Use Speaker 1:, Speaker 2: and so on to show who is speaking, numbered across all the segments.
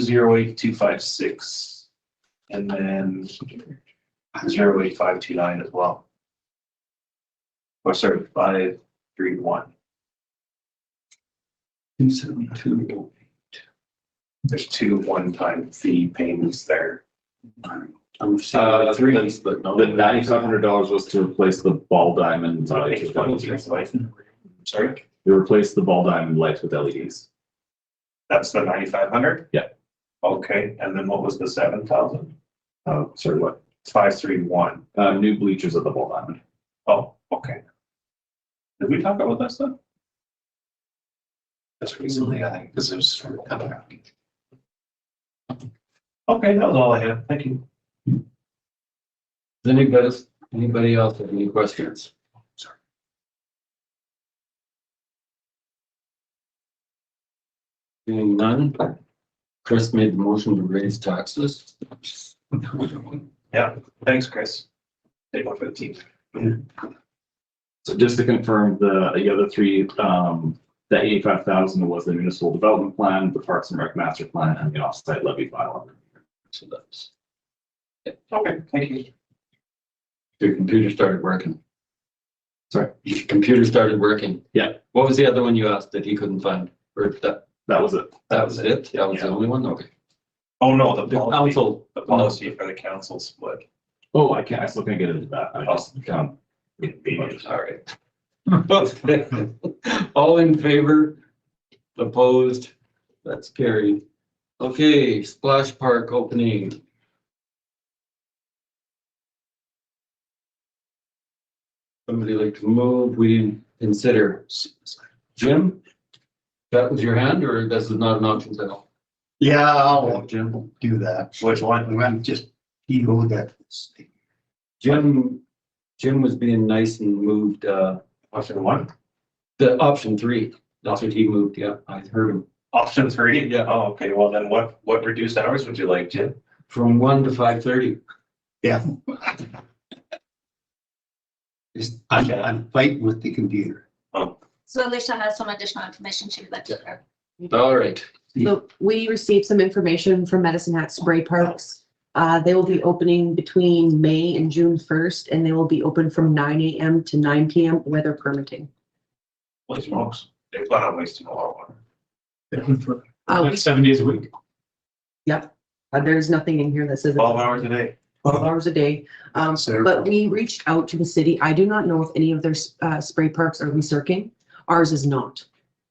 Speaker 1: zero eight two five six. And then zero eight five two nine as well. Or sorry, five three one. Two seventy two. There's two one-time fee payments there.
Speaker 2: I'm
Speaker 3: Uh,
Speaker 2: seeing three.
Speaker 3: that's The ninety-five hundred dollars was to replace the ball diamond lights with LEDs.
Speaker 1: Sorry,
Speaker 3: We replaced the ball diamond lights with E LEDs.
Speaker 1: that's the ninety-five hundred?
Speaker 3: Yeah.
Speaker 1: Okay, and then what was the seven thousand?
Speaker 3: Uh, sorry, what?
Speaker 1: Five three one.
Speaker 3: Uh, new bleachers at the ball diamond.
Speaker 1: Oh, okay. Did we talk about that stuff? That's recently, I think, because it was from. Okay, that was all I had. Thank you.
Speaker 2: Does anybody, anybody else have any questions? Seeing none, Chris made the motion to raise taxes.
Speaker 1: Thanks, Chris. Day one fifteen.
Speaker 3: So just to confirm, the, the other three, um, the eighty-five thousand was the municipal development plan, the Parks and Rec master plan, and the offsite levy file.
Speaker 2: So that's,
Speaker 1: Okay, thank you.
Speaker 2: your computer started working.
Speaker 3: Sorry?
Speaker 2: Your computer started working.
Speaker 3: Yeah.
Speaker 2: What was the other one you asked that he couldn't find? Or that,
Speaker 3: That was it.
Speaker 2: that was it? That was the only one? Okay.
Speaker 1: Oh, no, the
Speaker 2: The
Speaker 1: policy,
Speaker 2: council.
Speaker 1: the policy for the council split.
Speaker 3: Oh, I can't, I still can't get into that. I just um, can't.
Speaker 2: All right. All in favor? Opposed? That's carried. Okay, splash park opening. Somebody like to move, we didn't consider. Jim? That was your hand or this is not an option at all?
Speaker 4: Yeah, I'll
Speaker 2: Jim?
Speaker 4: do that.
Speaker 1: Which one?
Speaker 4: I'm I'm just, you go that.
Speaker 2: Jim, Jim was being nice and moved, uh,
Speaker 1: Option one?
Speaker 2: the option three. That's what he moved, yeah, I heard him.
Speaker 1: Option three?
Speaker 2: Yeah.
Speaker 1: Oh, okay, well then what, what reduced hours would you like, Jim?
Speaker 2: From one to five thirty.
Speaker 4: Yeah. Just, I'm, I'm fighting with the computer.
Speaker 5: So Alicia has some additional information she would like to share.
Speaker 2: All right.
Speaker 6: So we received some information from Medicine Hat Spray Parks. Uh, they will be opening between May and June first, and they will be open from nine AM to nine PM, weather permitting.
Speaker 1: Holy smokes, they plan on wasting a lot of water.
Speaker 6: Uh, we-
Speaker 7: Seven days a week.
Speaker 6: uh, there's nothing in here that says
Speaker 1: Twelve hours a day.
Speaker 6: twelve hours a day. Um,
Speaker 4: So-
Speaker 6: but we reached out to the city. I do not know if any of their, uh, spray parks are recircing. Ours is not.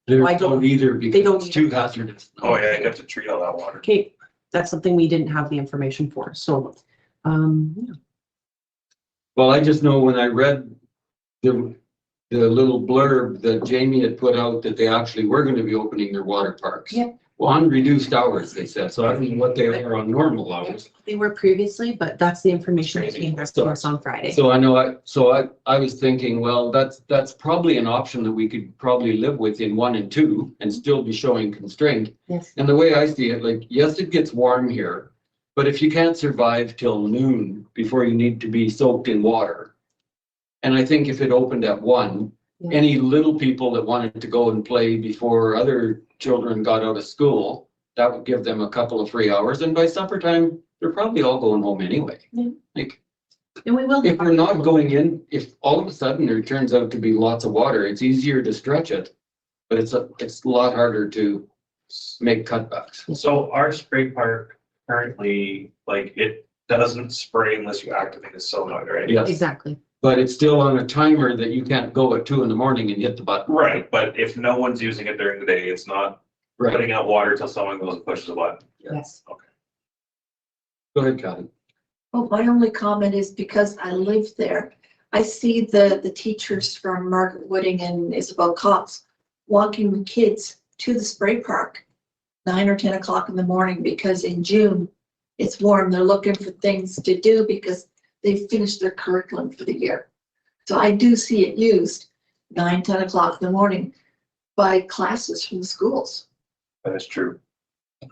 Speaker 2: They
Speaker 6: I don't-
Speaker 2: don't either
Speaker 6: don't
Speaker 2: because it's
Speaker 6: either.
Speaker 2: too hazardous.
Speaker 1: Oh, yeah, you have to treat all that water.
Speaker 6: Okay, that's something we didn't have the information for, so, um, yeah.
Speaker 2: Well, I just know when I read the, the little blurb that Jamie had put out that they actually were going to be opening their water parks.
Speaker 6: Yep.
Speaker 2: Well, on reduced hours, they said. So I don't know what they are on normal hours.
Speaker 6: they were previously, but that's the information that came to us on Friday.
Speaker 2: So I know I, so I, I was thinking, well, that's, that's probably an option that we could probably live with in one and two and still be showing constraint.
Speaker 6: Yes.
Speaker 2: And the way I see it, like, yes, it gets warm here, but if you can't survive till noon before you need to be soaked in water. And I think if it opened at one,
Speaker 6: Yeah.
Speaker 2: any little people that wanted to go and play before other children got out of school, that would give them a couple of free hours. And by supper time, they're probably all going home anyway.
Speaker 6: Yeah.
Speaker 2: Like,
Speaker 6: And we will.
Speaker 2: if we're not going in, if all of a sudden there turns out to be lots of water, it's easier to stretch it. But it's a, it's a lot harder to make cutbacks.
Speaker 1: So our spray park currently, like, it doesn't spray unless you activate a solenoid, right?
Speaker 2: Yes,
Speaker 6: Exactly.
Speaker 2: but it's still on a timer that you can't go at two in the morning and hit the button.
Speaker 1: Right, but if no one's using it during the day, it's not putting out water till someone goes and pushes a button.
Speaker 6: Yes.
Speaker 2: Go ahead, Kathy.
Speaker 8: Well, my only comment is because I live there, I see the, the teachers from Margaret Wooding and Isabel Cox walking the kids to the spray park nine or ten o'clock in the morning because in June it's warm. They're looking for things to do because they've finished their curriculum for the year. So I do see it used nine, ten o'clock in the morning by classes from the schools.
Speaker 1: That is true.
Speaker 2: I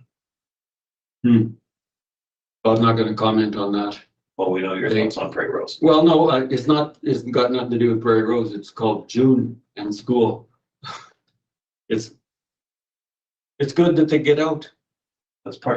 Speaker 2: was not gonna comment on that.
Speaker 1: Well, we know your thoughts on prairie roast.
Speaker 2: Well, no, uh, it's not, it's got nothing to do with Prairie Rose. It's called June and school. It's, it's good that they get out.
Speaker 1: That's part